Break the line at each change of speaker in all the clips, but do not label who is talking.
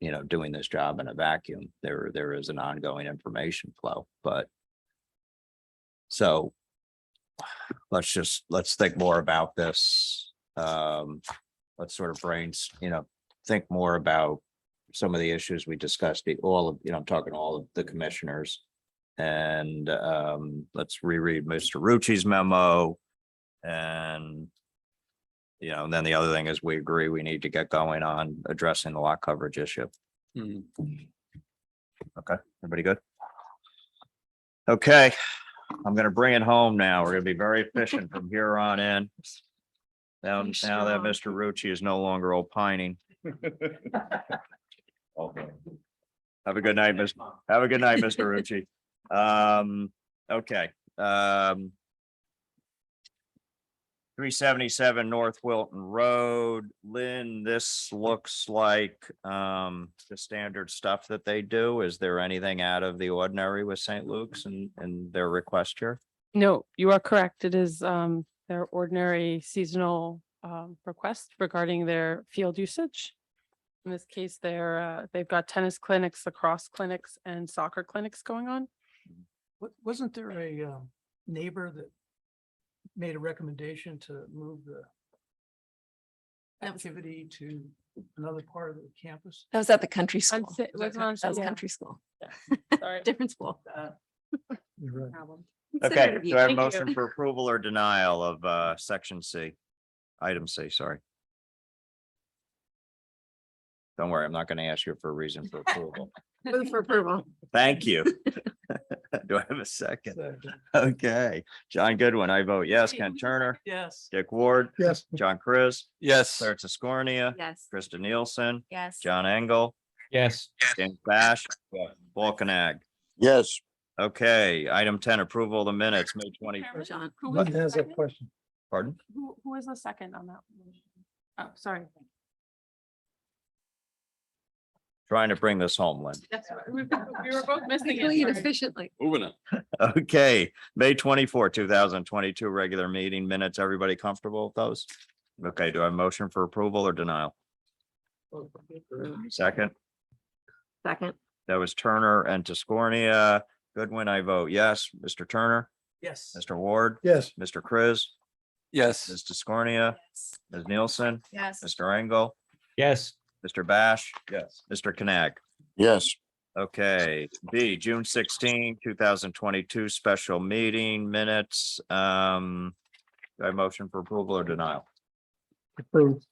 you know, doing this job in a vacuum. There, there is an ongoing information flow, but so let's just, let's think more about this. Um, let's sort of brains, you know, think more about some of the issues we discussed, the- all of, you know, I'm talking all of the commissioners. And um, let's reread Mr. Rucci's memo and you know, and then the other thing is we agree we need to get going on addressing the lot coverage issue.
Mm,
Everybody good? Okay, I'm gonna bring it home now. We're gonna be very efficient from here on in. Now,
You
now that Mr. Rucci is no longer opining. Okay. Have a good night, Miss, have a good night, Mr. Rucci. Um, okay, um. Three seventy-seven North Wilton Road, Lynn, this looks like, um, the standard stuff that they do. Is there anything out of the ordinary with St. Luke's and, and their request here?
No, you are correct. It is um their ordinary seasonal um request regarding their field usage. In this case, they're uh, they've got tennis clinics, lacrosse clinics and soccer clinics going on.
Wa- Wasn't there a um, neighbor that made a recommendation to move the
That was-
activity to another part of the campus?
That was at the country
I'd
school.
say it was on,
That was
yeah,
country school,
sorry.
different school.
You're right.
Okay, do I have a
Thank you.
motion for approval or denial of uh section C? Item C, sorry. Don't worry, I'm not gonna ask you for a reason for approval.
For approval.
Thank you. Do I have a second?
Second.
Okay, John Goodwin, I vote yes. Ken Turner,
Yes.
Dick Ward,
Yes.
John Chris,
Yes.
Claire Tiscornia,
Yes.
Krista Nielsen,
Yes.
John Engel,
Yes.
Dan Bash, Balkanag.
Yes.
Okay, item ten, approval of the minutes, May twenty,
Chairman,
John.
who was the second?
question.
pardon?
Who who was the second on that? motion? Oh, sorry.
Trying to bring this home, Lynn.
That's right. We we were both missing
Quickly and
it. sorry.
efficiently.
Moving on.
Okay, May twenty-four, two thousand twenty-two, regular meeting minutes. Everybody comfortable with those? Okay, do I have a motion for approval or denial? Second,
Second.
that was Turner and Tiscornia. Goodwin, I vote yes. Mr. Turner,
Yes.
Mr. Ward,
Yes.
Mr. Chris,
Yes.
Ms. Tiscornia, Ms. Nielsen,
Yes.
Mr. Engel. Yes. Mr. Bash. Yes. Mr. Connect.
Yes.
Okay, B, June 16, 2022, special meeting minutes. Um, do I have a motion for approval or denial?
Approved.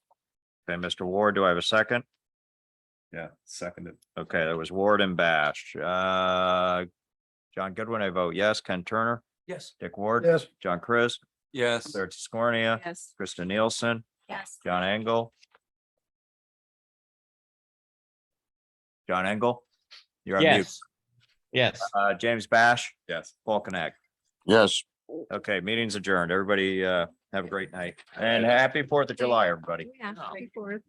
Okay, Mr. Ward, do I have a second?
Yeah, seconded.
Okay, that was Ward and Bash. Uh, John Goodwin, I vote yes. Ken Turner,
Yes.
Dick Ward,
Yes.
John Chris,
Yes.
Claire Tiscornia,
Yes.
Krista Nielsen,
Yes.
John Engel. John Engel? You're on mute.
Yes. Yes.
Uh, James Bash,
Yes.
Volcanac.
Yes.
Okay, meeting's adjourned. Everybody, uh, have a great night and happy Fourth of July, everybody.
Oh.
Yeah.
No.
before.